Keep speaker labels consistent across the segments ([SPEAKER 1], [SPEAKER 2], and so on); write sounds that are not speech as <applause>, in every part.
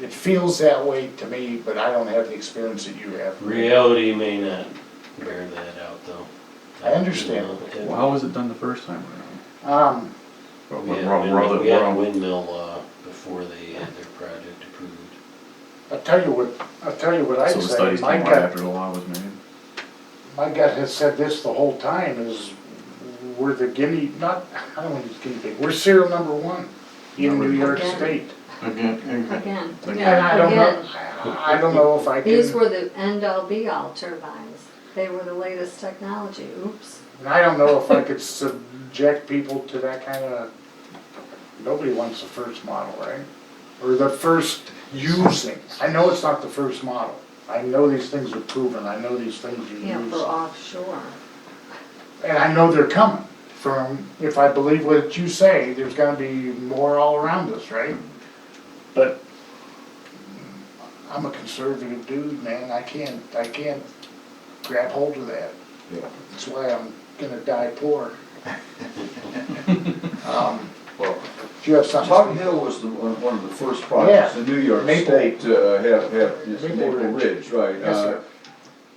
[SPEAKER 1] it feels that way to me, but I don't have the experience that you have.
[SPEAKER 2] Reality may not bear that out, though.
[SPEAKER 1] I understand.
[SPEAKER 2] You
[SPEAKER 3] Well,
[SPEAKER 2] know,
[SPEAKER 3] how was it done the first time around?
[SPEAKER 1] Um,
[SPEAKER 2] it-
[SPEAKER 3] Well,
[SPEAKER 2] We
[SPEAKER 3] we're-
[SPEAKER 2] had
[SPEAKER 3] we're-
[SPEAKER 2] windmill-
[SPEAKER 3] we're-
[SPEAKER 2] we had
[SPEAKER 3] we're-
[SPEAKER 2] windmill law before they had their project approved.
[SPEAKER 1] I'll tell you what, I'll tell you what I
[SPEAKER 3] So the
[SPEAKER 1] say,
[SPEAKER 3] studies
[SPEAKER 1] my
[SPEAKER 3] came out after
[SPEAKER 1] gut,
[SPEAKER 3] the law was made?
[SPEAKER 1] my gut has said this the whole time is, we're the guinea, not, I don't want to use guinea pig, we're serial number one in
[SPEAKER 3] Number
[SPEAKER 1] New York
[SPEAKER 4] Again.
[SPEAKER 1] State.
[SPEAKER 3] Again.
[SPEAKER 4] Again,
[SPEAKER 3] Again.
[SPEAKER 1] And I
[SPEAKER 4] yeah,
[SPEAKER 1] don't know,
[SPEAKER 4] again,
[SPEAKER 1] I don't know if I
[SPEAKER 4] these
[SPEAKER 1] can,
[SPEAKER 4] were the end-all be-all turbines. They were the latest technology, oops.
[SPEAKER 1] and I don't know if I could subject people to that kind of, nobody wants the first model, right? Or the first using, I know it's not the first model, I know these things are proven, I know these things are used.
[SPEAKER 4] Yeah, for offshore.
[SPEAKER 1] And I know they're coming from, if I believe what you say, there's gonna be more all around us, right? But mm, I'm a conservative dude, man, I can't, I can't grab hold of that.
[SPEAKER 3] Yeah.
[SPEAKER 1] That's why I'm gonna die poor. Um,
[SPEAKER 5] Well,
[SPEAKER 1] Do you have something?
[SPEAKER 5] Tottenham Hill was the, one one of the first projects in New York
[SPEAKER 1] Maple.
[SPEAKER 5] State to uh, have, have, this
[SPEAKER 1] Maple
[SPEAKER 5] Maple
[SPEAKER 1] Ridge.
[SPEAKER 5] Ridge, right?
[SPEAKER 1] Yes,
[SPEAKER 5] uh,
[SPEAKER 1] sir.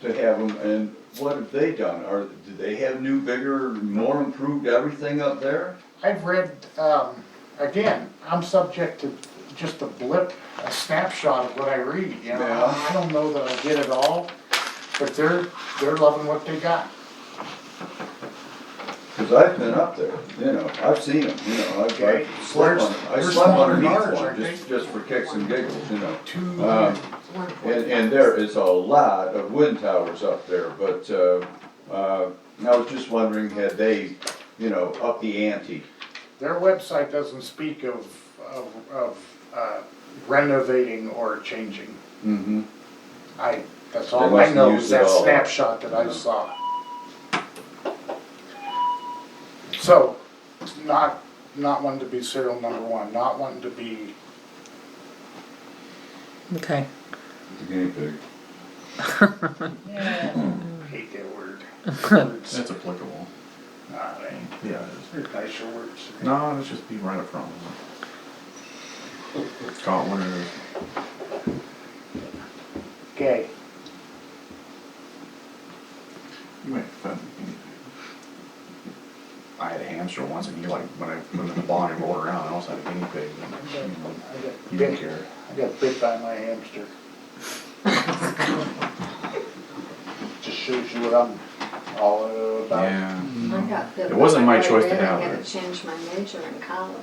[SPEAKER 5] To have them, and what have they done? Are, do they have new, bigger, more improved everything up there?
[SPEAKER 1] I've read, um, again, I'm subject to just a blip, a snapshot of what I read, you know?
[SPEAKER 5] Yeah.
[SPEAKER 1] I don't know that I get it all, but they're, they're loving what they got.
[SPEAKER 5] Cause I've been up there, you know, I've seen them, you know, I've,
[SPEAKER 1] Okay.
[SPEAKER 5] I've slept on, I
[SPEAKER 1] Where's-
[SPEAKER 5] slept
[SPEAKER 1] where's
[SPEAKER 5] underneath
[SPEAKER 1] Modern Arts,
[SPEAKER 5] one,
[SPEAKER 1] aren't
[SPEAKER 5] just, just for kicks and giggles, you know.
[SPEAKER 1] Two.
[SPEAKER 5] Um,
[SPEAKER 4] One
[SPEAKER 5] And,
[SPEAKER 4] point
[SPEAKER 5] and there is a lot of wind towers up there, but, uh, uh, I was just wondering, had they, you know, up the ante?
[SPEAKER 1] Their website doesn't speak of, of, of uh, renovating or changing.
[SPEAKER 5] Mm-hmm.
[SPEAKER 1] I, that's
[SPEAKER 5] They
[SPEAKER 1] all I
[SPEAKER 5] mustn't
[SPEAKER 1] know
[SPEAKER 5] use
[SPEAKER 1] is
[SPEAKER 5] it
[SPEAKER 1] that
[SPEAKER 5] all.
[SPEAKER 1] snapshot that I
[SPEAKER 5] Yeah.
[SPEAKER 1] saw. So, not, not wanting to be serial number one, not wanting to be,
[SPEAKER 6] Okay.
[SPEAKER 5] The guinea pig.
[SPEAKER 1] hate that word. Words,
[SPEAKER 3] That's applicable.
[SPEAKER 1] nah, they-
[SPEAKER 3] Yeah, it is.
[SPEAKER 1] they're nicer words.
[SPEAKER 3] No, it's just be right up front. Caught one of those.
[SPEAKER 1] Okay,
[SPEAKER 3] You might offend me. I had a hamster once and he like, when I put him in the barn, he rolled around, I almost had a guinea pig. and, you know,
[SPEAKER 1] I got
[SPEAKER 3] He didn't
[SPEAKER 1] bit,
[SPEAKER 3] care.
[SPEAKER 1] I got bit by my hamster. Just shows you what I'm all about.
[SPEAKER 3] Yeah.
[SPEAKER 4] I got bit
[SPEAKER 3] It wasn't my
[SPEAKER 4] by a
[SPEAKER 3] choice to
[SPEAKER 4] red.
[SPEAKER 3] have
[SPEAKER 4] I had
[SPEAKER 3] it.
[SPEAKER 4] to change my major in college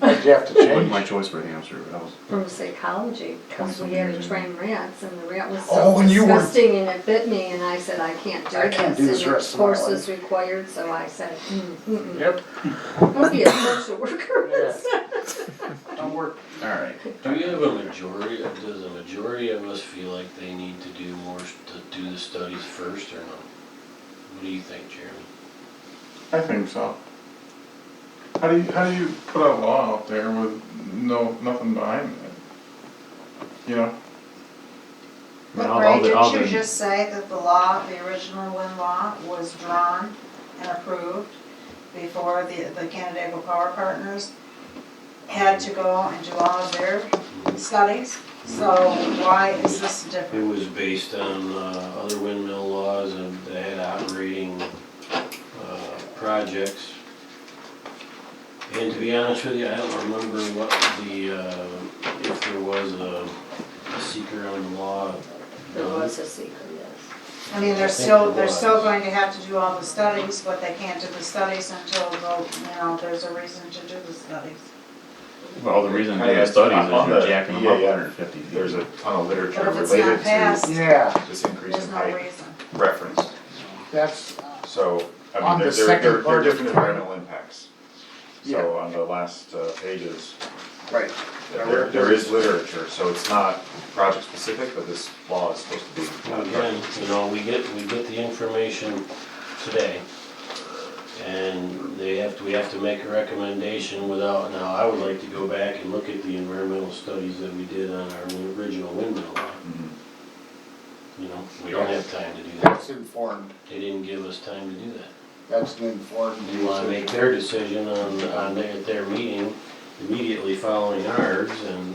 [SPEAKER 1] Did you have to
[SPEAKER 3] It wasn't my
[SPEAKER 1] change?
[SPEAKER 3] choice for a hamster, but I was,
[SPEAKER 4] from psychology because we had to train rats and the rat was
[SPEAKER 1] Oh,
[SPEAKER 4] so
[SPEAKER 1] when you were-
[SPEAKER 4] disgusting and it bit me and I said, I can't do
[SPEAKER 1] I
[SPEAKER 4] this.
[SPEAKER 1] can't do this
[SPEAKER 4] and the
[SPEAKER 1] rest of my
[SPEAKER 4] course
[SPEAKER 1] life."
[SPEAKER 4] is required, so I said, mm, mm,
[SPEAKER 1] Yep.
[SPEAKER 4] mm, I'll be a social worker <laughs>
[SPEAKER 1] Yeah.
[SPEAKER 4] instead.
[SPEAKER 1] Don't work.
[SPEAKER 3] alright.
[SPEAKER 2] Do we have a majority, does a majority of us feel like they need to do more, s- to do the studies first or not? What do you think, Jeremy?
[SPEAKER 7] I think so. How do you, how do you put a law out there with no, nothing behind it? You know,
[SPEAKER 3] But
[SPEAKER 8] But
[SPEAKER 3] all- all
[SPEAKER 8] Ray,
[SPEAKER 3] the- all
[SPEAKER 8] didn't you
[SPEAKER 3] the-
[SPEAKER 8] just say that the law, the original Lynn law, was drawn and approved before the, the Canandaigua Power Partners had to go and do all of their studies? So why is this
[SPEAKER 2] It
[SPEAKER 8] different?
[SPEAKER 2] was based on uh, other windmill laws and they had operating uh, projects. And to be honest with you, I don't remember what the, uh, if there was a a seeker on the law. Um,
[SPEAKER 4] There
[SPEAKER 2] done.
[SPEAKER 4] was a secret, yes.
[SPEAKER 8] I mean, they're
[SPEAKER 2] think
[SPEAKER 8] still,
[SPEAKER 2] it
[SPEAKER 8] they're still
[SPEAKER 2] was.
[SPEAKER 8] going to have to do all the studies, but they can't do the studies until, the- you know, there's a reason to do the studies.
[SPEAKER 3] Well, the reason they
[SPEAKER 7] I
[SPEAKER 3] do the
[SPEAKER 7] had-
[SPEAKER 3] studies is
[SPEAKER 7] on
[SPEAKER 3] you're
[SPEAKER 7] the
[SPEAKER 3] jacking them up
[SPEAKER 7] EAF,
[SPEAKER 3] hundred and fifty.
[SPEAKER 7] there's a ton of
[SPEAKER 8] But
[SPEAKER 7] literature
[SPEAKER 8] if it's not
[SPEAKER 7] related to
[SPEAKER 8] passed,
[SPEAKER 1] Yeah,
[SPEAKER 7] this increase
[SPEAKER 8] there's
[SPEAKER 7] in
[SPEAKER 8] no
[SPEAKER 7] height
[SPEAKER 8] reason.
[SPEAKER 7] reference.
[SPEAKER 1] that's,
[SPEAKER 7] So, I
[SPEAKER 1] On
[SPEAKER 7] mean, there,
[SPEAKER 1] the
[SPEAKER 7] there,
[SPEAKER 1] second
[SPEAKER 7] there there
[SPEAKER 1] part
[SPEAKER 7] are
[SPEAKER 1] of
[SPEAKER 7] different
[SPEAKER 1] it.
[SPEAKER 7] environmental impacts.
[SPEAKER 1] Yeah.
[SPEAKER 7] So on the last uh, pages,
[SPEAKER 1] right.
[SPEAKER 7] there, there is literature, so it's not project specific, but this law is supposed to be.
[SPEAKER 2] Well, Again, you know, we get, we get the information today, and they have, to we have to make a recommendation without, now, I would like to go back and look at the environmental studies that we did on our original windmill law.
[SPEAKER 7] Mhm.
[SPEAKER 2] You know, we don't have time to do that,
[SPEAKER 1] That's informed,
[SPEAKER 2] they didn't give us time to do that.
[SPEAKER 1] that's an informed.
[SPEAKER 2] They wanna make their decision on, on their, at their meeting immediately following ours, and